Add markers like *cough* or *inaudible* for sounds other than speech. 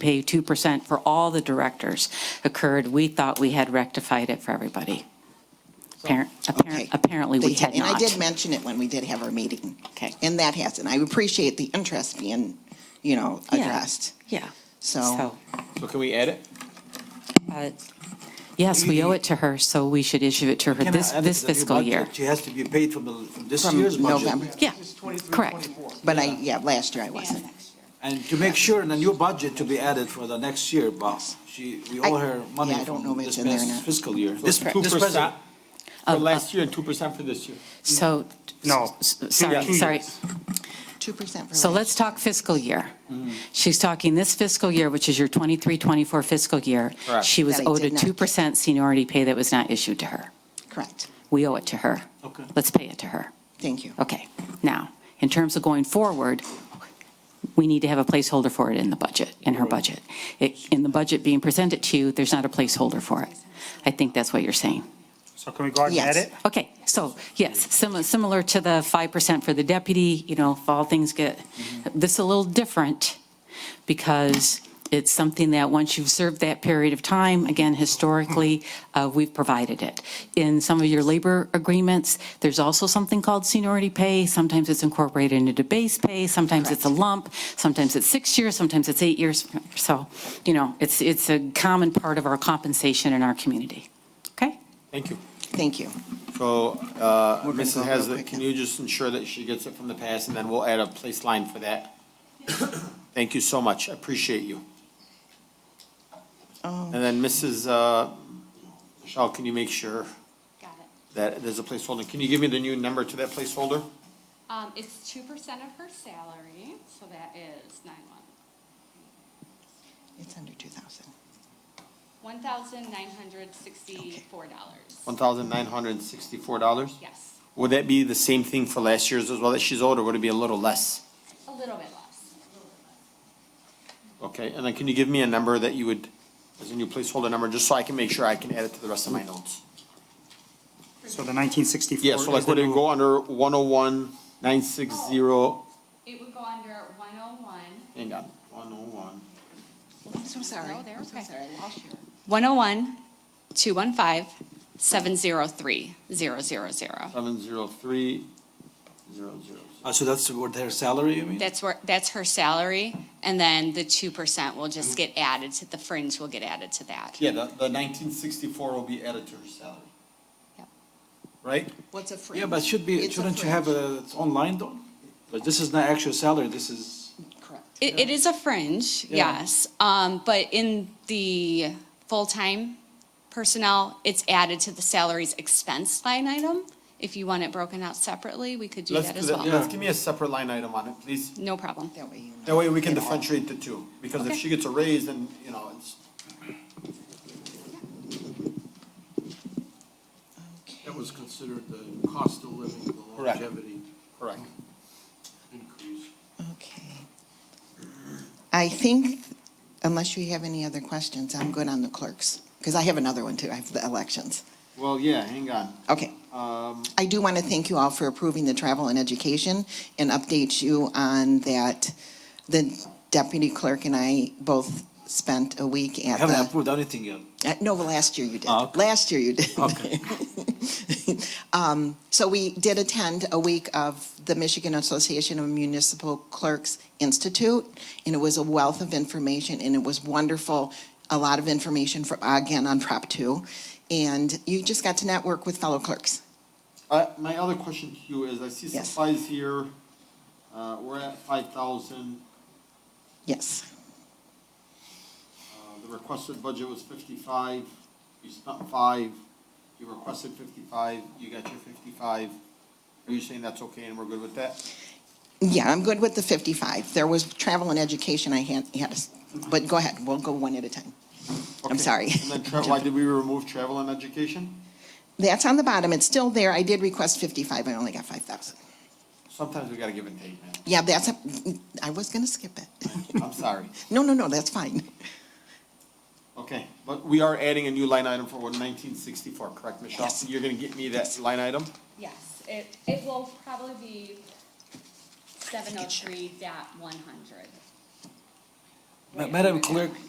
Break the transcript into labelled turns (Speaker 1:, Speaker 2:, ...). Speaker 1: pay 2% for all the directors occurred, we thought we had rectified it for everybody. Appar-
Speaker 2: Okay.
Speaker 1: appar- Apparently, we
Speaker 2: They ha-
Speaker 1: had not.
Speaker 2: And I did mention it when we did have our meeting.
Speaker 1: Okay.
Speaker 2: And that hasn't. I appreciate the interest being, you know,
Speaker 1: Yeah.
Speaker 2: addressed.
Speaker 1: Yeah.
Speaker 2: So,
Speaker 3: So can we add it?
Speaker 1: uh, Yes, we owe it to her, so we should issue it to her
Speaker 4: Can I
Speaker 1: this
Speaker 4: add
Speaker 1: this
Speaker 4: that the
Speaker 1: fiscal
Speaker 4: budget,
Speaker 1: year.
Speaker 4: She has to be paid from the- from this
Speaker 2: From
Speaker 4: year's
Speaker 2: November.
Speaker 4: budget.
Speaker 1: Yeah,
Speaker 5: It's 23,
Speaker 1: correct.
Speaker 5: 24.
Speaker 2: but I, yeah, last year I wasn't.
Speaker 4: And to make sure in the new budget to be added for the next year, but she, we owe
Speaker 2: I-
Speaker 4: her money
Speaker 2: yeah, I don't know
Speaker 4: from
Speaker 2: if it's
Speaker 4: this
Speaker 2: in there or
Speaker 4: past
Speaker 2: not.
Speaker 4: fiscal year.
Speaker 3: This
Speaker 4: This,
Speaker 3: two
Speaker 4: this
Speaker 3: percent
Speaker 4: present.
Speaker 3: for
Speaker 2: Oh,
Speaker 1: Uh,
Speaker 3: last year and two percent for this year.
Speaker 1: So,
Speaker 5: No.
Speaker 1: s- sorry,
Speaker 5: Two
Speaker 1: sorry.
Speaker 5: years.
Speaker 2: 2% for.
Speaker 1: So
Speaker 2: last-
Speaker 1: let's talk fiscal year. She's talking this fiscal year, which is your 23, 24 fiscal year.
Speaker 3: Correct.
Speaker 1: She was
Speaker 2: That I
Speaker 1: owed a
Speaker 2: did not get.
Speaker 1: 2% seniority pay that was not issued to her.
Speaker 2: Correct.
Speaker 1: We owe it to her.
Speaker 4: Okay.
Speaker 1: Let's pay it to her.
Speaker 2: Thank you.
Speaker 1: Okay. Now, in terms of going forward, we need to have a placeholder for it in the budget, in her budget. It- In the budget being presented to you, there's not a placeholder for it. I think that's what you're saying.
Speaker 5: So can we go ahead and
Speaker 2: Yes.
Speaker 5: add it?
Speaker 1: Okay, so, yes, similar, similar to the 5% for the deputy, you know, if all things get, this is a little different, because it's something that, once you've served that period of time, again, historically, uh, we've provided it. In some of your labor agreements, there's also something called seniority pay, sometimes it's incorporated into base pay, sometimes it's a lump, sometimes it's six years, sometimes it's eight years, so, you know, it's, it's a common part of our compensation in our community, okay?
Speaker 3: Thank you.
Speaker 2: Thank you.
Speaker 3: So, uh,
Speaker 2: We're gonna go
Speaker 3: Mrs.
Speaker 2: real
Speaker 3: Haslett,
Speaker 2: quick
Speaker 3: can
Speaker 2: now.
Speaker 3: you just ensure that she gets it from the past, and then we'll add a place line for that? *coughs* Thank you so much, I appreciate you.
Speaker 2: Oh.
Speaker 3: And then Mrs. uh, Michelle, can you make sure
Speaker 6: Got it.
Speaker 3: that there's a placeholder? Can you give me the new number to that placeholder?
Speaker 6: Um, it's two percent of her salary, so that is nine one,
Speaker 2: It's under 2,000.
Speaker 6: one thousand nine hundred sixty-four dollars.
Speaker 3: $1,964?
Speaker 6: Yes,
Speaker 3: Would that be the same thing for last year's as well that she's older? Would it be a little less?
Speaker 6: a little bit less.
Speaker 3: Okay, and then can you give me a number that you would, as a new placeholder number, just so I can make sure I can add it to the rest of my notes?
Speaker 5: So the 1964.
Speaker 3: Yeah, so like
Speaker 5: is the
Speaker 3: would it
Speaker 5: new-
Speaker 3: go under one oh one, nine six zero,
Speaker 6: It would go under one oh one,
Speaker 3: hang on, one oh one,
Speaker 2: I'm so sorry.
Speaker 6: No, they're
Speaker 2: I'm so
Speaker 6: okay.
Speaker 2: sorry. I lost you.
Speaker 6: one oh one, two one five, seven zero three, zero zero zero.
Speaker 3: seven zero three, zero zero.
Speaker 4: Uh, so that's what her salary, you mean?
Speaker 6: That's where, that's her salary, and then the two percent will just get added to, the fringe will get added to that.
Speaker 3: Yeah, the, the nineteen sixty-four will be added to her salary.
Speaker 6: Yep.
Speaker 3: Right?
Speaker 2: What's a fringe?
Speaker 4: Yeah, but should be,
Speaker 2: It's a
Speaker 4: shouldn't you have
Speaker 2: fringe.
Speaker 4: a, it's online though? But this is not actual salary, this is,
Speaker 2: Correct.
Speaker 6: It, it is a fringe,
Speaker 4: Yeah.
Speaker 6: yes, um, but in the full-time personnel, it's added to the salaries expense line item. If you want it broken out separately, we could do
Speaker 3: Let's
Speaker 6: that
Speaker 3: do
Speaker 6: as
Speaker 3: that,
Speaker 6: well.
Speaker 3: let's give me a separate line item on it, please.
Speaker 6: No problem.
Speaker 2: That way you know.
Speaker 3: That way we can
Speaker 2: It all-
Speaker 3: differentiate the two, because if
Speaker 6: Okay.
Speaker 3: she gets a raise, then, you know, it's,
Speaker 7: That was considered the cost of living, the
Speaker 3: Correct.
Speaker 7: longevity
Speaker 3: correct.
Speaker 7: increase.
Speaker 2: Okay. I think, unless you have any other questions, I'm good on the clerks, because I have another one too. I have the elections.
Speaker 3: Well, yeah, hang on.
Speaker 2: Okay.
Speaker 4: Um,
Speaker 2: I do want to thank you all for approving the travel and education and update you on that. The deputy clerk and I both spent a week
Speaker 4: we
Speaker 2: at
Speaker 4: haven't
Speaker 2: the,
Speaker 4: approved anything yet.
Speaker 2: uh, no, well, last year you did.
Speaker 4: Oh, okay.
Speaker 2: Last year you did.
Speaker 4: Okay.
Speaker 2: *laughs* Um, So we did attend a week of the Michigan Association of Municipal Clerks Institute, and it was a wealth of information, and it was wonderful, a lot of information for, again, on Prop 2. And you just got to network with fellow clerks.
Speaker 3: Uh, my other question to you is, I see
Speaker 2: Yes.
Speaker 3: supplies here, uh, we're at five thousand,
Speaker 2: Yes.
Speaker 3: uh, the requested budget was fifty-five, you spent five, you requested fifty-five, you got your fifty-five. Are you saying that's okay and we're good with that?
Speaker 2: Yeah, I'm good with the 55. There was travel and education I had, had us- but go ahead, we'll go one at a time. I'm
Speaker 3: Okay.
Speaker 2: sorry. *laughs*
Speaker 3: And then tra- why did we remove travel and education?
Speaker 2: That's on the bottom, it's still there. I did request 55, I only got 5,000.
Speaker 3: Sometimes we gotta give and take, man.
Speaker 2: Yeah, that's, a- I was going to skip it.
Speaker 3: I'm sorry.
Speaker 2: No, no, no, that's fine.
Speaker 3: Okay, but we are adding a new line item for nineteen sixty-four, correct, Michelle?
Speaker 2: Yes.
Speaker 3: You're gonna get me that line item?
Speaker 6: Yes, it, it will probably be seven oh three dot one hundred.
Speaker 4: Ma- Madam Clerk,